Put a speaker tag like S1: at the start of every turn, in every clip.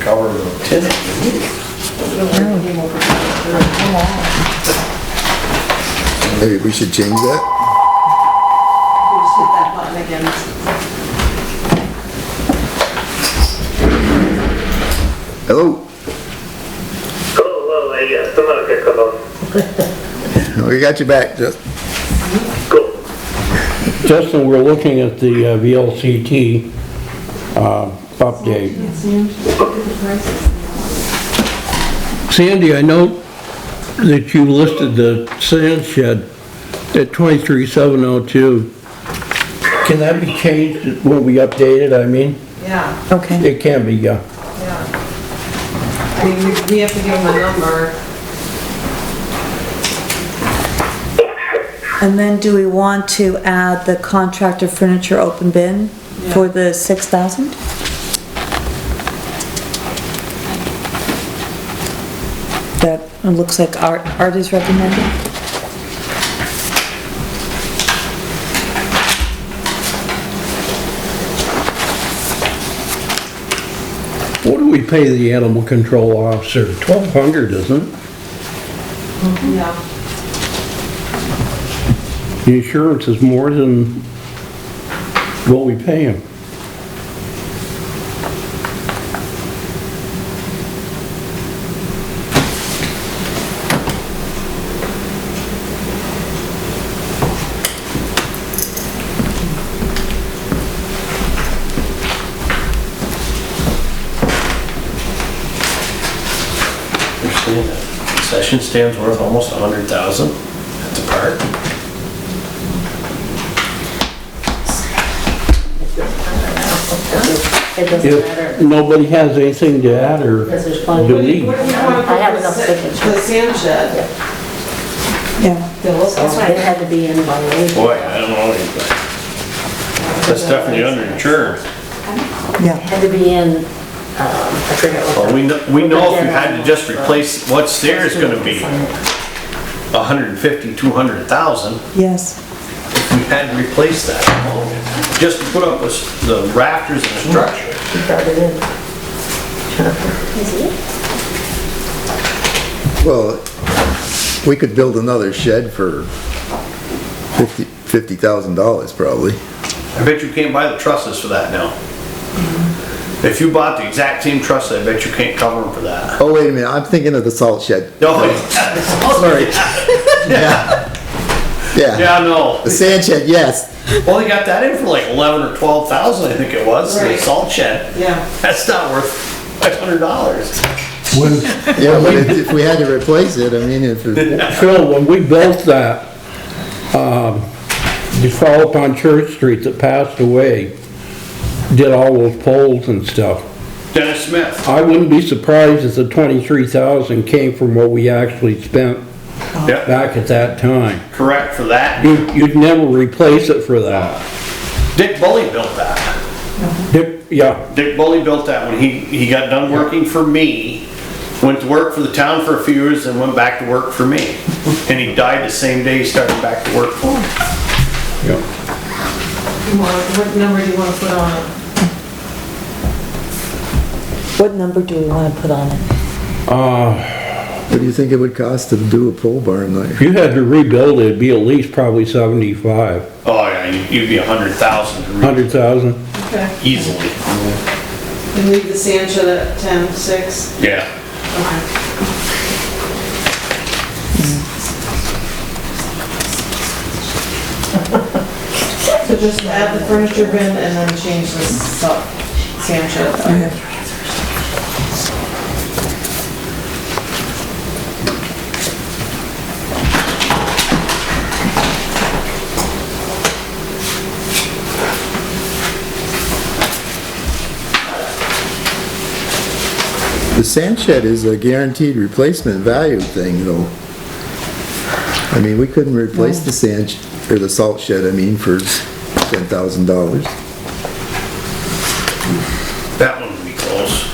S1: cover the,
S2: Maybe we should change that?
S3: Just hit that button again.
S2: Hello,
S4: Hello, hello, I got someone here, come on.
S2: we got you back, just,
S4: Cool.
S5: Justin, we're looking at the uh, VLCT uh, update.
S3: It seems, look at the prices.
S5: Sandy, I note that you listed the sand shed at 23702. Can that be changed, will be updated, I mean?
S3: Yeah,
S6: Okay,
S5: It can be, uh, yeah.
S3: yeah. I mean, we, we have to give them a number.
S6: and then do we want to add the contractor furniture open bin for the six thousand? That it looks like Art, Art is recommending.
S5: What do we pay the animal control officer? 1,200, isn't it?
S3: Yeah,
S5: The insurance is more than what we pay him.
S7: You're saying that concession stand's worth almost a hundred thousand at the park?
S8: It doesn't
S5: If
S8: matter,
S5: nobody has anything to add or
S8: because there's plenty.
S5: Do we?
S3: what do we want
S8: I have
S3: to
S8: enough
S3: put
S8: signatures.
S3: for the sand shed?
S6: Yeah,
S3: They'll look
S8: That's why it had to be in by law.
S7: Boy, I don't know anything. That's definitely underinsured.
S8: It
S6: yeah.
S8: had to be in, um, I forget what.
S7: Well,
S8: the-
S7: we know, we know if you had to just replace what's there is gonna be a hundred and fifty, two hundred thousand.
S6: Yes,
S7: If we had to replace that, just to put up with the rafters and the structure.
S8: She brought it in.
S2: well, we could build another shed for fifty, fifty thousand dollars probably.
S7: I bet you can't buy the trusses for that now. If you bought the exact same truss, I bet you can't cover them for that.
S2: Oh, wait a minute, I'm thinking of the salt shed,
S7: No, sorry. Yeah,
S2: yeah.
S7: yeah, no.
S2: The sand shed, yes,
S7: Well, they got that in for like eleven or twelve thousand, I think it was, the
S3: Right.
S7: salt shed.
S3: Yeah,
S7: That's not worth five hundred dollars.
S5: when,
S2: yeah, but if if we had to replace it, I mean, if, it-
S5: Phil, when we built that, um, you follow up on Church Street that passed away, did all those poles and stuff.
S7: Dennis Smith.
S5: I wouldn't be surprised if the twenty-three thousand came from what we actually spent
S3: Uh-huh.
S7: Yep,
S5: back at that time.
S7: correct for that.
S5: You, you'd never replace it for that.
S7: Dick Bully built that.
S5: Dick- Yeah,
S7: Dick Bully built that when he, he got done working for me, went to work for the town for a few years and went back to work for me. And he died the same day he started back to work for me.
S5: yeah.
S3: you want, what number do you want to put on it?
S6: what number do we wanna put on it?
S5: Uh,
S2: what do you think it would cost to do a pole barn
S5: if
S2: there?
S5: you had to rebuild it, it'd be at least probably seventy-five,
S7: Oh, yeah, you- you'd be a hundred thousand to re-
S5: hundred thousand.
S3: Okay,
S7: easily.
S3: and leave the sand shed at ten, six,
S7: Yeah.
S3: okay. So just add the furniture bin and then change the salt, sand shed.
S2: The sand shed is a guaranteed replacement value thing though. I mean, we couldn't replace the sand, sh- or the salt shed, I mean, for ten thousand dollars.
S7: That one would be close.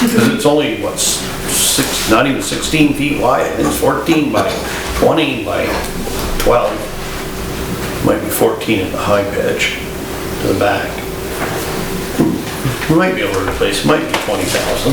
S7: Because it's only, what, s- six, not even 16 feet wide, it's 14 by 20 by 12. Might be 14 at the high pitch to the back. We Might be able to replace, it might be 20,000.